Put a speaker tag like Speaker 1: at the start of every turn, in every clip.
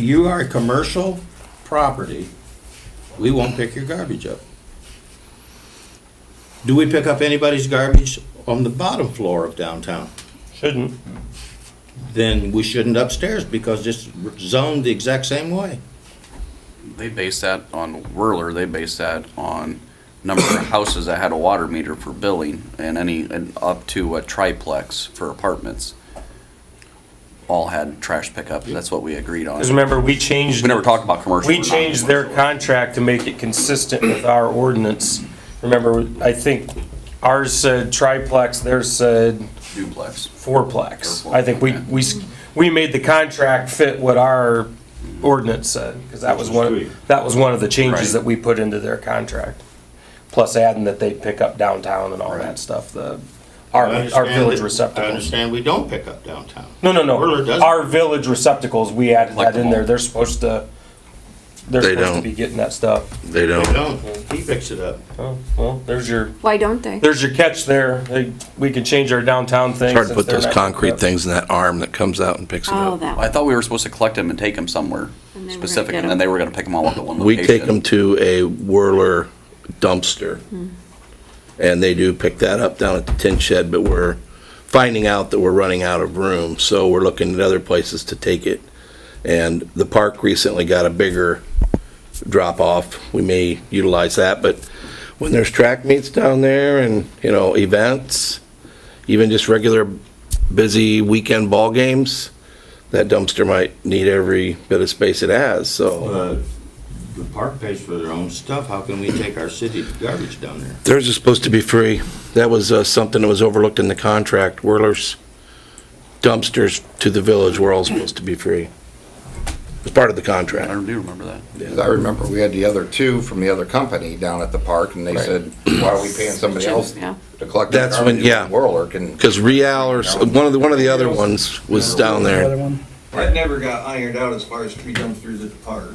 Speaker 1: you are a commercial property, we won't pick your garbage up. Do we pick up anybody's garbage on the bottom floor of downtown?
Speaker 2: Shouldn't.
Speaker 1: Then we shouldn't upstairs because it's zoned the exact same way.
Speaker 3: They based that on Whirler, they based that on number of houses that had a water meter for billing and any, and up to a triplex for apartments. All had trash pickup, that's what we agreed on.
Speaker 2: Because remember, we changed.
Speaker 3: We never talked about commercial.
Speaker 2: We
Speaker 3: or
Speaker 2: changed their
Speaker 3: non-commercial.
Speaker 2: contract to make it consistent with our ordinance. Remember, I think ours said triplex, theirs said
Speaker 3: Duplex.
Speaker 2: fourplex. I think we, we, s- we made the contract fit what our ordinance said, because that was one, that was one of the changes
Speaker 3: Right.
Speaker 2: that we put into their contract. Plus adding that they pick up downtown and all
Speaker 3: Right.
Speaker 2: that stuff, the, our, our village
Speaker 1: I
Speaker 2: receptacles.
Speaker 1: understand we don't pick up downtown.
Speaker 2: No, no,
Speaker 1: Whirler
Speaker 2: no.
Speaker 1: does.
Speaker 2: Our village receptacles, we added
Speaker 3: Like
Speaker 2: that in there. They're supposed to, they're
Speaker 4: They
Speaker 2: supposed to
Speaker 4: don't.
Speaker 2: be getting that stuff.
Speaker 4: They
Speaker 1: We
Speaker 4: don't.
Speaker 1: don't, he picks it up.
Speaker 2: Oh, well, there's your,
Speaker 5: Why don't they?
Speaker 2: there's your catch there. They- We can change our downtown thing.
Speaker 4: It's hard to put those concrete things in that arm that comes out and picks it
Speaker 5: Oh,
Speaker 4: up.
Speaker 5: that
Speaker 3: I
Speaker 5: one.
Speaker 3: thought we were supposed to collect them and take them somewhere
Speaker 5: And then we're gonna
Speaker 3: specific,
Speaker 5: get
Speaker 3: and then
Speaker 5: 'em.
Speaker 3: they were gonna pick them all up at one
Speaker 4: We
Speaker 3: location.
Speaker 4: take them to a Whirler dumpster, and they do pick that up down at the tin shed, but we're finding out that we're running out of room, so we're looking at other places to take it. And the park recently got a bigger drop-off. We may utilize that, but when there's track meets down there and, you know, events, even just regular busy weekend ball games, that dumpster might need every bit of space it has, so.
Speaker 1: But Uh, the park pays for their own stuff, how can we take our city garbage down there?
Speaker 4: Theirs is supposed to be free. That was uh, something that was overlooked in the contract. Whirlers dumpsters to the village were all supposed to be free. It's part of the
Speaker 3: I
Speaker 4: contract.
Speaker 3: don't do remember that.
Speaker 6: Because I remember we had the other two from the other company down at the park, and they said, why are we paying somebody else
Speaker 5: Yeah.
Speaker 6: to collect the
Speaker 4: That's when-
Speaker 6: garbage?
Speaker 4: yeah.
Speaker 6: Whirler can,
Speaker 4: Because Real or, s- one of the, one of the other ones was down there.
Speaker 7: That never got ironed out as far as tree dumpsters at the park,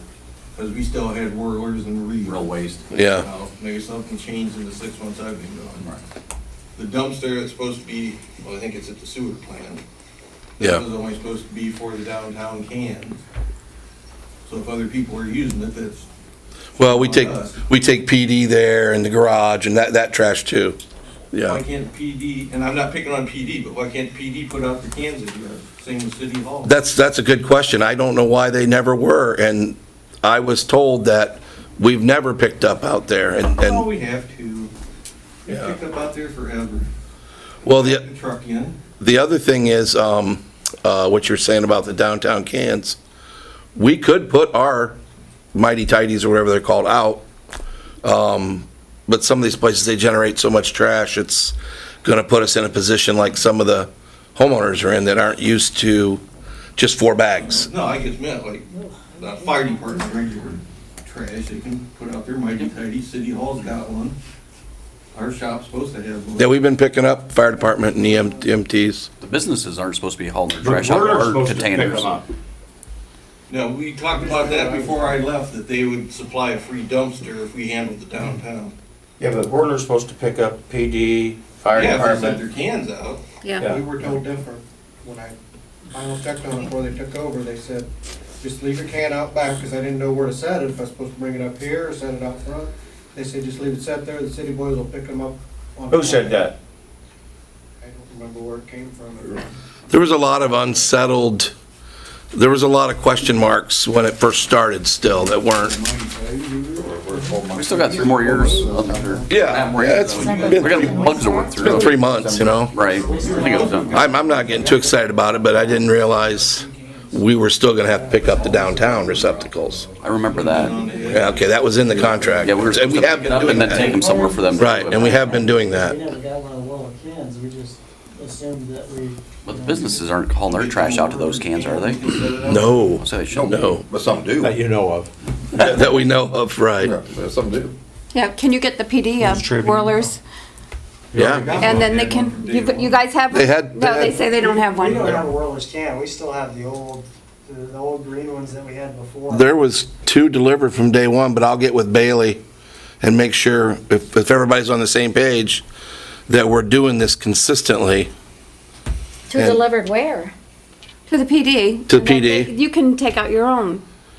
Speaker 7: because we still had whirlers and reels.
Speaker 3: Real waste.
Speaker 4: Yeah.
Speaker 7: Now, Maybe something changed in the six months I've been gone. The dumpster is supposed to be, well, I think it's at the sewer plant.
Speaker 4: Yeah.
Speaker 7: That was only supposed to be for the downtown cans. So if other people were using it, that's,
Speaker 4: Well, we take, we take PD there and the garage and that, that trash too.
Speaker 7: why
Speaker 4: Yeah.
Speaker 7: can't PD, and I'm not picking on PD, but why can't PD put out the cans at your, same with City Hall?
Speaker 4: That's, that's a good question. I don't know why they never were. And I was told that we've never picked up out there and,
Speaker 7: Oh,
Speaker 4: and,
Speaker 7: we have to. They
Speaker 4: Yeah.
Speaker 7: picked up out there forever.
Speaker 4: well, the.
Speaker 7: The Truck in.
Speaker 4: The other thing is, um, uh, what you're saying about the downtown cans, we could put our mighty tidies or whatever they're called out. Um, but some of these places, they generate so much trash, it's gonna put us in a position like some of the homeowners are in that aren't used to just four bags.
Speaker 7: No, I just meant like, the fire department, regular trash, they can put out their mighty tidy, city hall's got one. Our shop's supposed to have one.
Speaker 4: Yeah, we've been picking up fire department and E EM, EMTs.
Speaker 3: The businesses aren't supposed to be hauling their trash out of our containers.
Speaker 7: No, we talked about that before I left, that they would supply a free dumpster if we handled the downtown.
Speaker 2: Yeah, but Whirler's supposed to pick up PD, fire
Speaker 7: Yeah, if they sent their cans out.
Speaker 5: Yeah.
Speaker 8: We were told different. When I final checked on it before they took over, they said, just leave your can out back, because I didn't know where to set it, if I was supposed to bring it up here or set it out front. They said, just leave it set there, the city boys will pick them up. on-
Speaker 2: Who said that?
Speaker 8: I don't remember where it came from.
Speaker 4: There was a lot of unsettled, there was a lot of question marks when it first started still that weren't.
Speaker 3: We still got three more years up there.
Speaker 4: Yeah,
Speaker 3: We're
Speaker 4: yeah, it's been-
Speaker 3: We got bugs to work
Speaker 4: It's been
Speaker 3: through.
Speaker 4: three months, you know?
Speaker 3: Right. I think it was done.
Speaker 4: I'm, I'm not getting too excited about it, but I didn't realize we were still gonna have to pick up the downtown receptacles.
Speaker 3: I remember that.
Speaker 4: Yeah, okay, that was in the contract.
Speaker 3: Yeah, we were
Speaker 4: And
Speaker 3: supposed
Speaker 4: we
Speaker 3: to
Speaker 4: have
Speaker 3: pick it
Speaker 4: been
Speaker 3: up
Speaker 4: doing
Speaker 3: and then take
Speaker 4: that.
Speaker 3: them somewhere for them. to
Speaker 4: Right,
Speaker 3: do it.
Speaker 4: and we have been doing
Speaker 9: We
Speaker 4: that.
Speaker 9: never got one of Willow cans, we just assumed that we.
Speaker 3: But the businesses aren't hauling their trash out to those cans, are they?
Speaker 4: No,
Speaker 3: So they shouldn't.
Speaker 4: no,
Speaker 6: but some do.
Speaker 4: Uh,
Speaker 1: you know of.
Speaker 4: that we know of, right.
Speaker 6: Yeah, but Some do.
Speaker 5: Yeah, can you get the PD of Whirlers?
Speaker 4: Yeah,
Speaker 5: And then they can, you you guys have?
Speaker 4: They had-
Speaker 5: No, they say they don't have
Speaker 9: We don't have a
Speaker 5: one.
Speaker 9: Whirlish can, we still have the old, the- the old green ones that we had before.
Speaker 4: there was two delivered from day one, but I'll get with Bailey and make sure if, if everybody's on the same page, that we're doing this consistently.
Speaker 10: Two
Speaker 4: And-
Speaker 10: delivered where?
Speaker 5: To the PD.
Speaker 4: To
Speaker 5: and then
Speaker 4: PD.
Speaker 5: they- You can take out your own